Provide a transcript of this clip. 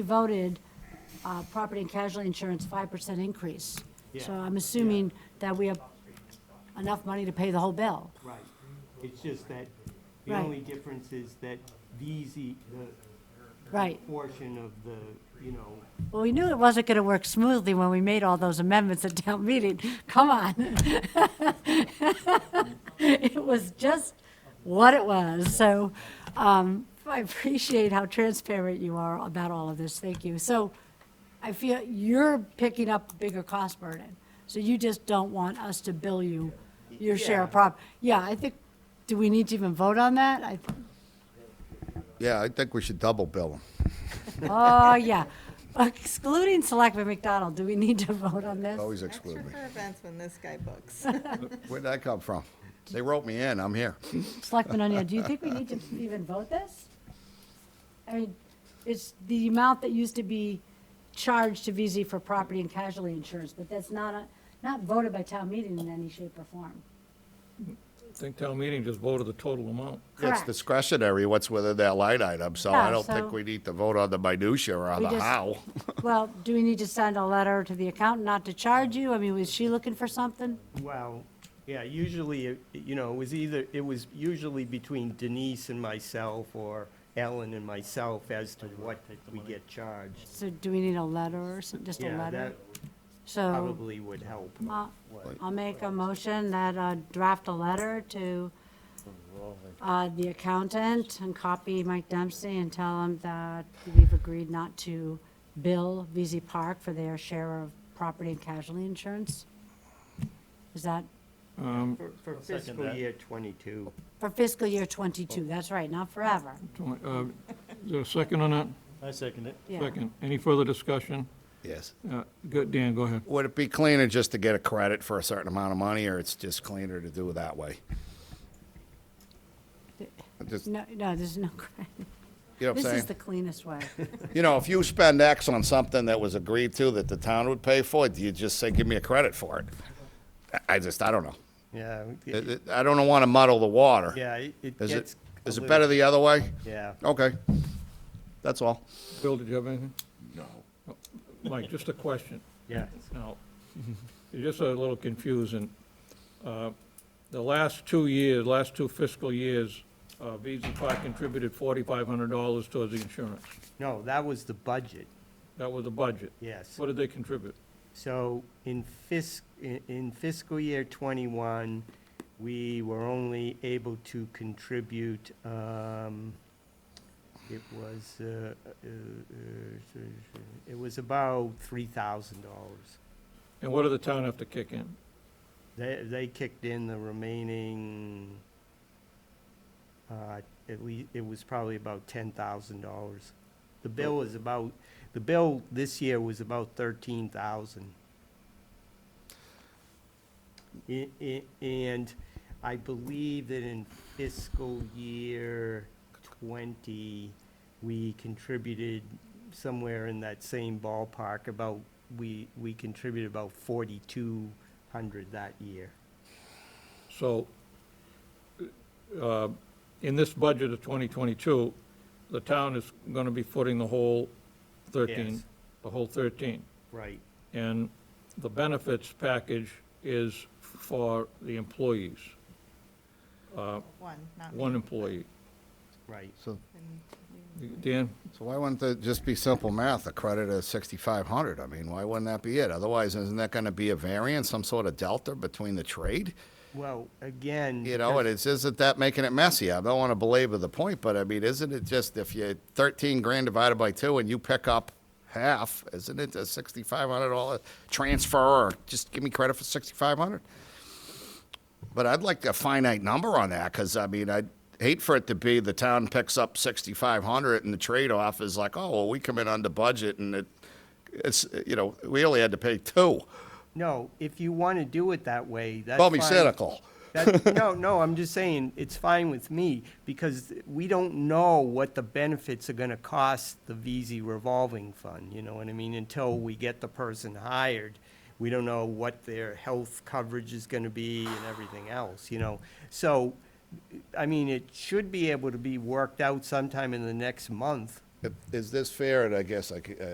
voted uh, property and casualty insurance 5% increase. So Yeah. I'm assuming that we have enough money to pay the whole bill. Right. It's just that the Right. only difference is that these, e- the. Right. Portion of the, you know, Well, we knew it wasn't going to work smoothly when we made all those amendments at town meeting. Come on. It was just what it was. So um, I appreciate how transparent you are about all of this. Thank you. So I feel you're picking up a bigger cost burden. So you just don't want us to bill you your share of prop. Yeah, I think, do we need to even vote on that? I Yeah, I think we should double bill them. Oh, yeah. Excluding Selectman McDonald, do we need to vote on this? Always Extra exclude me. for events when this guy books. Where'd that come from? They wrote me in, I'm here. Selectman O'Neill, do you think we need to even vote this? I mean, it's the amount that used to be charged to VZ for property and casualty insurance, but that's not, a- not voted by town meeting in any shape or form. I think town meeting just voted the total amount. It's Correct. discretionary what's within that line item, so Yeah, I don't so- think we need to vote on the minutia or on We the just- how. Well, do we need to send a letter to the accountant not to charge you? I mean, was she looking for something? well, yeah, usually, it- you know, it was either, it was usually between Denise and myself or Ellen and myself as to what we get charged. So do we need a letter or some, just a Yeah, letter? Oh. that So. probably would help. Uh, I'll make a motion that uh, draft a letter to uh, the accountant and copy Mike Dempsey and tell him that we've agreed not to bill VZ Park for their share of property and casualty insurance. Is that For- For fiscal year twenty-two. for fiscal year 22? That's right, not forever. Uh, Is there a second on that? I second it. Yeah. Second. Any further discussion? Yes. Uh, Go, Dan, go ahead. Would it be cleaner just to get a credit for a certain amount of money, or it's just cleaner to do it that way? Just, you No, no, there's no, credit. know what this I'm is the saying? cleanest way. You know, if you spend X on something that was agreed to that the town would pay for, do you just say, give me a credit for it? I- I just, I don't know. Yeah. It- it- it- I don't want to muddle the water. Yeah, it it Is it, gets. a is it little- better the other way? Yeah. Okay. That's all. Bill, did you have anything? No. Mike, just a question. Yeah. Now, you're just a little confusing. Uh, The last two years, last two fiscal years, uh, VZ Park contributed $4,500 towards the insurance. No, that was the budget, That was the budget. yes. What did they contribute? So in fisc, in- in fiscal year '21, we were only able to contribute, um, it was, uh, uh, uh, it was about $3,000. And what did the town have to kick in? They, they kicked in the remaining, uh, at least, it was probably about ten thousand dollars. The bill was about, the bill this year was about thirteen thousand. I, I, and I believe that in fiscal year twenty, we contributed somewhere in that same ballpark, about, we, we contributed about forty-two hundred that year. So, uh, in this budget of 2022, the town is going to be footing the whole 13, Yes. the whole 13. Right. And the benefits package is for the employees, One, not one me. employee. Right. So, Dan, so why wouldn't it just be simple math, a credit of sixty-five hundred? I mean, why wouldn't that be it? Otherwise, isn't that gonna be a variance, some sort of delta between the trade? Well, again. You know, and because- it's, isn't that making it messy? I don't wanna belabor the point, but I mean, isn't it just if you thirteen grand divided by two and you pick up half, isn't it a sixty-five hundred dollar transfer or just give me credit for sixty-five hundred? But I'd like a finite number on that, because I mean, I'd hate for it to be the town picks up sixty-five hundred and the trade-off is like, oh, well, we come in under budget and it, it's, you know, we only had to pay two. No, if you want to do it that way, that's Call me fine. cynical. That- No, no, I'm just saying, it's fine with me, because we don't know what the benefits are gonna cost the VZ revolving fund, you know what I mean? Until we get the person hired, we don't know what their health coverage is gonna be and everything else, you know? So, I mean, it should be able to be worked out sometime in the next month, Is this fair? And I guess I c- uh,